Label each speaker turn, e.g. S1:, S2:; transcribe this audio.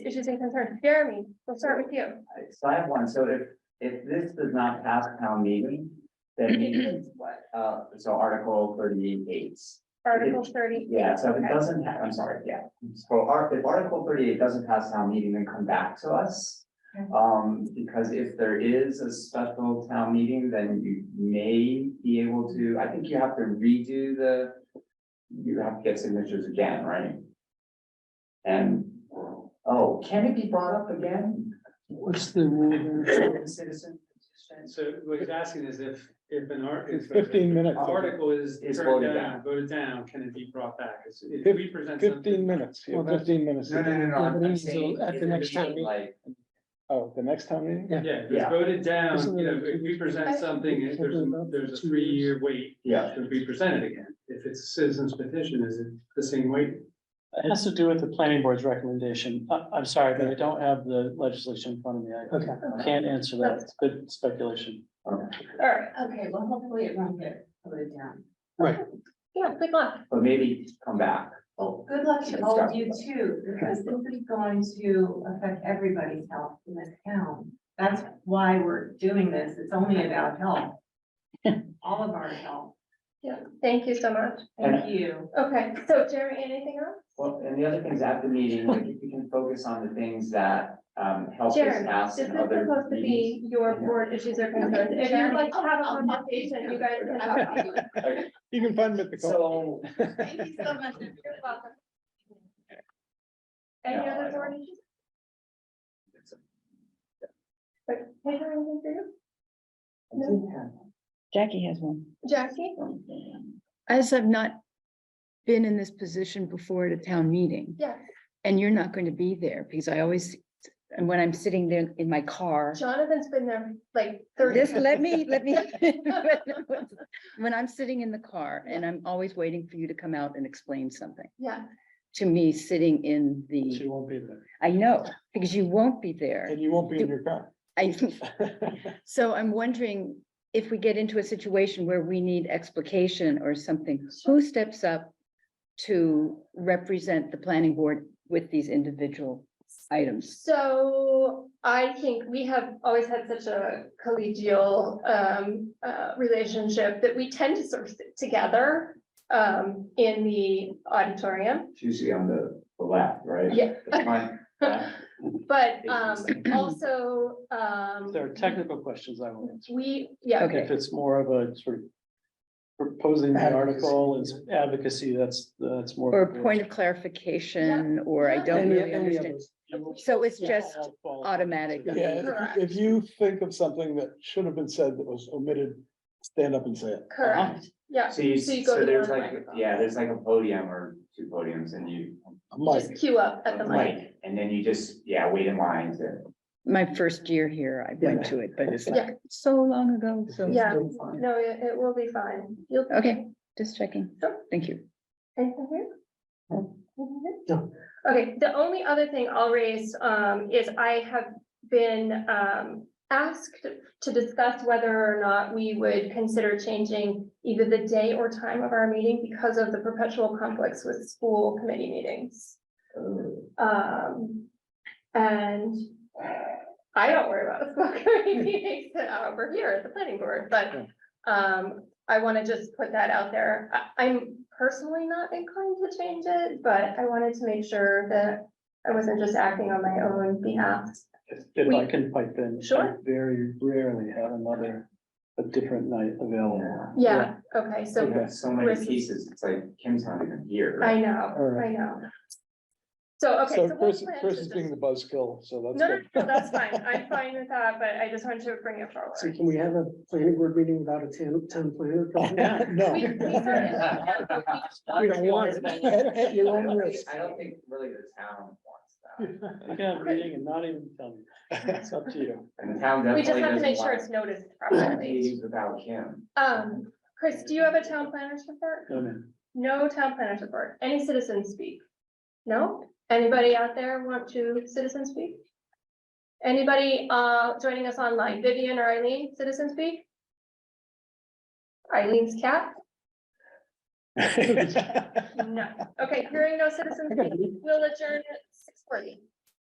S1: issues and concerns. Jeremy, we'll start with you.
S2: So I have one, so if, if this does not pass town meeting, then means what, uh, so article thirty-eight.
S1: Article thirty.
S2: Yeah, so if it
S1: Okay.
S2: doesn't, ha- I'm sorry, yeah, so art, if article thirty-eight doesn't pass town meeting, then come back to us.
S1: Okay.
S2: Um, because if there is a special town meeting, then you may be able to, I think you have to redo the. You have to get signatures again, right? And, oh, can it be brought up again?
S3: What's the rule there?
S2: Citizen petition.
S4: So what he's asking is if, if an art.
S3: It's
S4: if a-
S3: fifteen minutes,
S4: Article is
S2: Is
S4: turned
S2: voted
S4: down, voted down, can it be brought back? Is- If
S3: Fif-
S4: we present
S3: fifteen
S4: something,
S3: minutes,
S4: Well, that's-
S3: fifteen minutes.
S2: No, no, no, no,
S3: Yeah,
S2: I'm
S3: but
S2: I'm
S3: this is
S2: saying.
S3: At the next
S2: time,
S3: time, meeting.
S2: Like,
S3: oh, the next time meeting?
S4: yeah, if it's
S2: Yeah.
S4: voted down,
S3: Isn't
S4: you
S3: it-
S4: know, if we present something, if there's, a- there's a
S3: Two years.
S4: three-year wait.
S2: yeah,
S4: Should be presented again. If it's a citizen's petition, is it the same wait?
S5: It has to do with the planning board's recommendation. I, I'm sorry, but I don't have the legislation in front of me.
S3: Okay.
S5: I can't answer that. It's good speculation.
S1: All right,
S6: Okay, well, hopefully it won't get voted down.
S1: yeah, good luck.
S2: but maybe come back.
S6: Well, good luck to all of you too, because this is going to affect everybody's health in this town. That's why we're doing this. It's only about health. All of our health.
S1: Yeah, thank you so much.
S6: Thank you.
S1: Okay, so Jeremy, anything else?
S2: Well, and the other things at the meeting, like if you can focus on the things that um help us
S1: Jeremy,
S2: ask
S1: this is
S2: in other
S1: supposed to
S2: meetings.
S1: be your board issues or concerns. If you'd like to have a conversation, you guys can have. it.
S3: You can find me at the. call.
S2: So,
S6: Thank you so much.
S1: You're welcome. Any
S2: No, I
S1: other
S2: don't.
S1: board issues? But, hey, how are you doing?
S7: Jackie has one.
S1: Jackie?
S7: As I've not been in this position before at a town meeting,
S1: Yeah,
S7: and you're not going to be there, because I always, and when I'm sitting there in my car,
S1: Jonathan's been there like thirty.
S7: this, let me, let me. When I'm sitting in the car and I'm always waiting for you to come out and explain something
S1: Yeah,
S7: to me, sitting in
S3: She
S7: the,
S3: won't be there,
S7: I know, because you won't be there.
S3: and you won't be in your car.
S7: I, so I'm wondering if we get into a situation where we need explication or something, who steps up to represent the planning board with these individual items?
S1: so I think we have always had such a collegial um uh relationship that we tend to sort of sit together um in the auditorium.
S2: it's usually on the the left, right?
S1: Yeah.
S2: The front, left.
S1: But um also um
S5: If there are technical questions, I will answer.
S1: we, yeah,
S7: Okay.
S5: If it's more of a sort of proposing the article and advocacy, that's, that's more.
S7: Or a point of clarification, or I
S1: Yeah.
S7: don't
S3: Any-
S7: really
S3: any of
S7: understand.
S3: us.
S7: So it's just automatic.
S3: Yeah, if- if you think of something that should have been said that was omitted, stand up and say it.
S1: correct, yeah,
S2: So you,
S1: So you
S2: so
S1: go to
S2: there's
S1: the
S2: like,
S1: microphone.
S2: yeah, there's like a podium or two podiums and you.
S3: Mike,
S1: just queue up at the mic.
S2: And then you just, yeah, wait in line to.
S7: My first year here, I went to it, but it's
S1: Yeah.
S7: like so long ago, so.
S1: Yeah, no, it it will be fine. You'll.
S7: Okay, just checking.
S1: Sure.
S7: Thank you.
S1: Anything here? Anything here? Okay, the only other thing I'll raise um is I have been um asked to discuss whether or not we would consider changing either the day or time of our meeting because of the perpetual conflicts with school committee meetings.
S2: oh.
S1: Um, and I don't worry about the school committee meetings, uh, we're here at the planning board, but um, I wanna just put that out there. I, I'm personally not inclined to change it, but I wanted to make sure that I wasn't just acting on my own behalf.
S5: If I can pipe in.
S1: Sure.
S5: I Very rarely have another, a different night available.
S1: Yeah, okay,
S2: You
S1: so
S2: have so many
S1: Chris is-
S2: pieces, it's like Kim's not even here.
S1: I know, I
S3: Alright.
S1: know. So, okay.
S3: so
S1: we'll
S3: Chris,
S1: plan to
S3: Chris is
S1: just-
S3: being the buzzkill, so
S1: No,
S3: that's
S1: no,
S3: good.
S1: no, that's fine. I'm fine with that, but I just wanted to bring it forward.
S8: So can we have a planning board meeting without a town, town planner?
S5: Yeah.
S3: No.
S1: We- we started-
S3: We don't want it. At- at your
S2: I
S3: own
S2: don't think,
S3: risk.
S2: I don't think really the town wants that,
S5: You can have a meeting and not even tell me. It's up to you.
S2: and the town
S1: We
S2: definitely
S1: just
S2: doesn't
S1: have
S2: want.
S1: to make sure it's noticed properly.
S2: Meetings without Kim.
S1: Um, Chris, do you have a town planner's report?
S5: No, man.
S1: No town planner's report. Any citizen speak? No? Anybody out there want to citizen speak? Anybody uh joining us online? Vivian or Eileen, citizen speak? Eileen's cat? No. Okay, hearing no citizen speak, we'll adjourn at six forty.